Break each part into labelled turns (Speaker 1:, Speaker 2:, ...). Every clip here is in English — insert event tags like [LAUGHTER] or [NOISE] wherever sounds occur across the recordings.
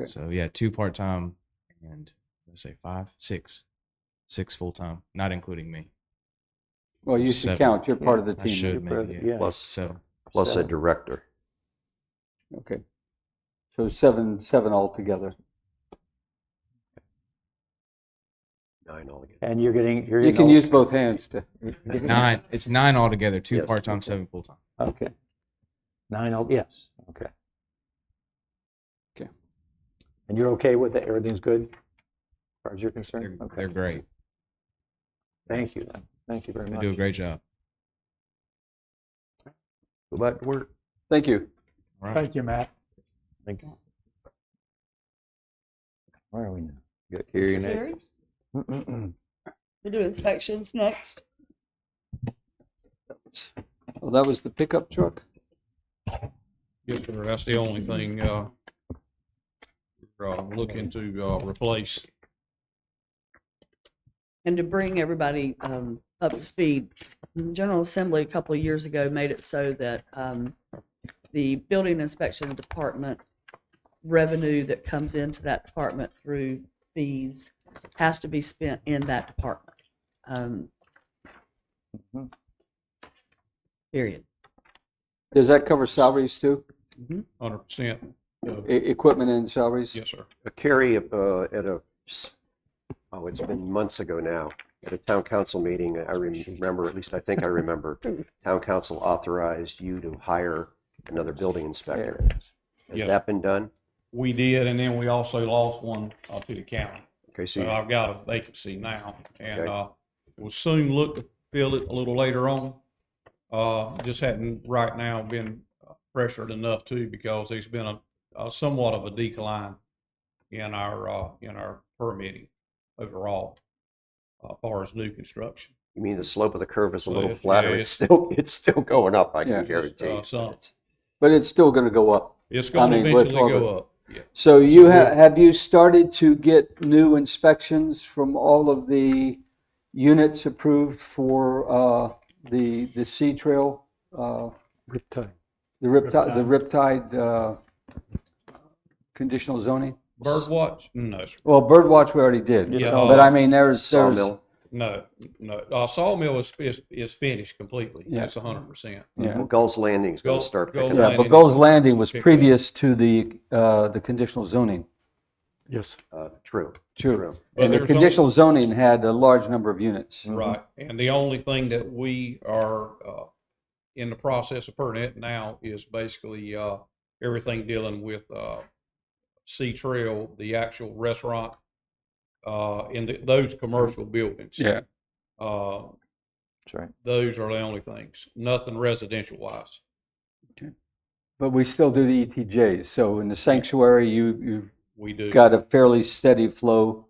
Speaker 1: Okay.
Speaker 2: So yeah, two part time and let's say five, six, six full time, not including me.
Speaker 1: Well,
Speaker 2: So
Speaker 1: you should
Speaker 2: seven.
Speaker 1: count. You're part of the
Speaker 2: I should
Speaker 1: team.
Speaker 3: part of
Speaker 2: maybe.
Speaker 3: the-
Speaker 2: Yeah.
Speaker 3: yeah.
Speaker 4: Plus-
Speaker 2: So
Speaker 4: plus a
Speaker 1: Seven.
Speaker 4: director.
Speaker 1: Okay. So seven, seven altogether.
Speaker 4: Nine altogether.
Speaker 3: And you're getting, you're
Speaker 1: You
Speaker 3: getting.
Speaker 1: can
Speaker 3: all-
Speaker 1: use both hands to, [LAUGHS]
Speaker 2: nine. It's nine altogether. Two
Speaker 4: Yes.
Speaker 2: part time, seven full time.
Speaker 3: Okay. Nine, oh, yes, okay.
Speaker 1: Okay.
Speaker 3: And you're okay with that? Everything's good? As far as you're
Speaker 2: They're,
Speaker 3: concerned?
Speaker 2: they're
Speaker 3: Okay.
Speaker 2: great.
Speaker 3: Thank you then. Thank you very
Speaker 2: They
Speaker 3: much.
Speaker 2: do a great job.
Speaker 4: Go back to work.
Speaker 1: thank you.
Speaker 2: All right.
Speaker 5: Thank you, Matt.
Speaker 3: Thank you. Where are we now?
Speaker 4: You got hearing aid.
Speaker 6: Gary,
Speaker 3: Mm-mm-mm.
Speaker 6: We do inspections next.
Speaker 1: Well, that was the pickup truck.
Speaker 7: Yes, sir. That's the only thing, uh, we're, uh, looking to, uh, replace.
Speaker 6: And to bring everybody um, up to speed, the General Assembly a couple of years ago made it so that um, the building inspection department revenue that comes into that department through fees has to be spent in that department. Um,
Speaker 3: Mhm.
Speaker 6: Period.
Speaker 1: Does that cover salaries too?
Speaker 7: Hundred percent. uh,
Speaker 1: E- Equipment and salaries?
Speaker 7: Yes, sir.
Speaker 4: Uh, Carrie, uh, at a, s- oh, it's been months ago now, at a town council meeting, I remember, at least I think I
Speaker 7: [LAUGHS]
Speaker 4: remember, town council authorized you to hire another building
Speaker 3: There
Speaker 4: inspector.
Speaker 3: it is.
Speaker 4: Has
Speaker 7: Yeah.
Speaker 4: that been done?
Speaker 7: We did, and then we also lost one, uh, to the county.
Speaker 4: Okay, so
Speaker 7: So
Speaker 4: you-
Speaker 7: I've got a vacancy now, and,
Speaker 4: Okay.
Speaker 7: uh, will soon look to fill it a little later on. Uh, just hadn't right now been pressured enough too, because there's been a, a somewhat of a decline in our, uh, in our permitting overall, uh, far as new construction.
Speaker 4: you mean the slope of the curve is a
Speaker 7: Well,
Speaker 4: little
Speaker 7: it-
Speaker 4: flatter,
Speaker 7: yeah,
Speaker 4: it's still, it's still going up, I
Speaker 1: Yeah,
Speaker 4: can
Speaker 1: just,
Speaker 4: guarantee.
Speaker 7: uh,
Speaker 4: you, but
Speaker 7: some.
Speaker 4: it's-
Speaker 1: But it's still going to go up.
Speaker 7: It's
Speaker 1: I
Speaker 7: gonna
Speaker 1: mean, we're
Speaker 7: eventually
Speaker 1: talking-
Speaker 7: go up. Yeah.
Speaker 1: So you ha- have you started to get new inspections from all of the units approved for uh, the the sea trail, uh,
Speaker 5: Riptide.
Speaker 1: the riptide, the riptide uh, conditional zoning?
Speaker 7: Birdwatch? No, sir.
Speaker 1: Well, birdwatch we already did,
Speaker 7: Yeah. Oh.
Speaker 1: but I mean there's there's
Speaker 4: Sawmill,
Speaker 7: no, no. Uh, Sawmill is, is, is finished completely.
Speaker 1: Yeah.
Speaker 7: It's a hundred percent.
Speaker 1: yeah.
Speaker 4: Gulls Landing's gonna
Speaker 7: Gulls-
Speaker 4: start
Speaker 7: Gulls
Speaker 4: picking
Speaker 1: Yeah,
Speaker 4: up.
Speaker 1: but Gold's Landing was previous to the uh, the conditional zoning.
Speaker 5: Yes.
Speaker 4: Uh, True,
Speaker 1: True.
Speaker 4: true.
Speaker 7: But
Speaker 1: And the
Speaker 7: there's Mm. only-
Speaker 1: conditional zoning had a large number of units.
Speaker 7: Right. And the only thing that we are, uh, in the process of permit now is basically, uh, everything dealing with, uh, Sea Trail, the actual restaurant, uh, and th- those commercial buildings. Uh,
Speaker 3: That's right.
Speaker 7: those are the only things, nothing residential wise.
Speaker 1: But we still do the ETJs. So in the sanctuary, you, you
Speaker 7: We do.
Speaker 1: got a fairly steady flow.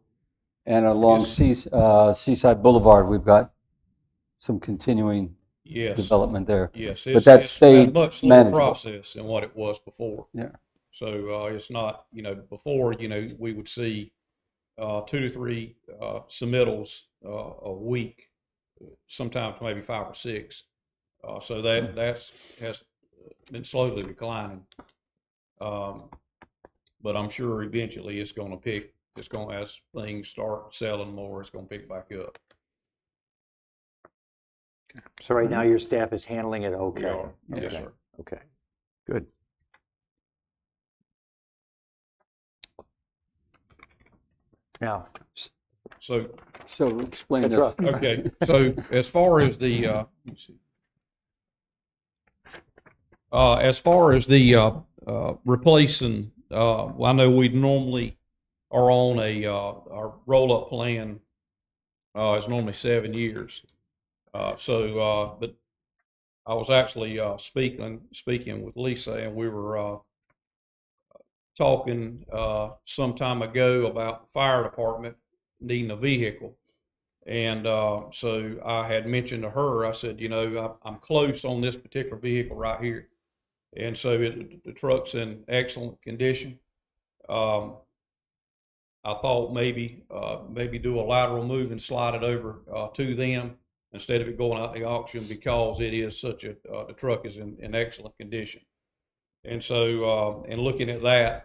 Speaker 1: And along
Speaker 7: Yes.
Speaker 1: Seas- uh, Seaside Boulevard, we've got some continuing
Speaker 7: Yes.
Speaker 1: development there.
Speaker 7: Yes,
Speaker 1: But
Speaker 7: it's,
Speaker 1: that's
Speaker 7: it's been a
Speaker 1: stayed
Speaker 7: much slower
Speaker 1: manageable.
Speaker 7: process than what it was before.
Speaker 1: Yeah.
Speaker 7: So uh, it's not, you know, before, you know, we would see uh, two to three uh, submittals uh, a week, sometimes maybe five or six. Uh, so that that's has been slowly declining. Um, but I'm sure eventually it's going to pick. It's going to as things start selling more, it's going to pick back up.
Speaker 3: So right now, your staff is handling it
Speaker 7: We
Speaker 3: okay?
Speaker 7: are. Yes,
Speaker 3: Okay.
Speaker 7: sir.
Speaker 3: Okay.
Speaker 4: Good.
Speaker 3: Now,
Speaker 7: So
Speaker 1: So explain
Speaker 3: Good [LAUGHS]
Speaker 1: that.
Speaker 3: luck.
Speaker 7: Okay, so as far as the, uh, let me see. uh, as far as the, uh, uh, replacing, uh, well, I know we normally are on a, uh, our roll-up plan, uh, is normally seven years. Uh, so, uh, but I was actually, uh, speaking, speaking with Lisa and we were, uh, talking, uh, some time ago about fire department needing a vehicle. And uh, so I had mentioned to her, I said, you know, I, I'm close on this particular vehicle right here. And so it, the truck's in excellent condition. Um, I thought maybe, uh, maybe do a lateral move and slide it over uh, to them instead of it going out the auction because it is such a, uh, the truck is in, in excellent condition. And so, uh, and looking at that,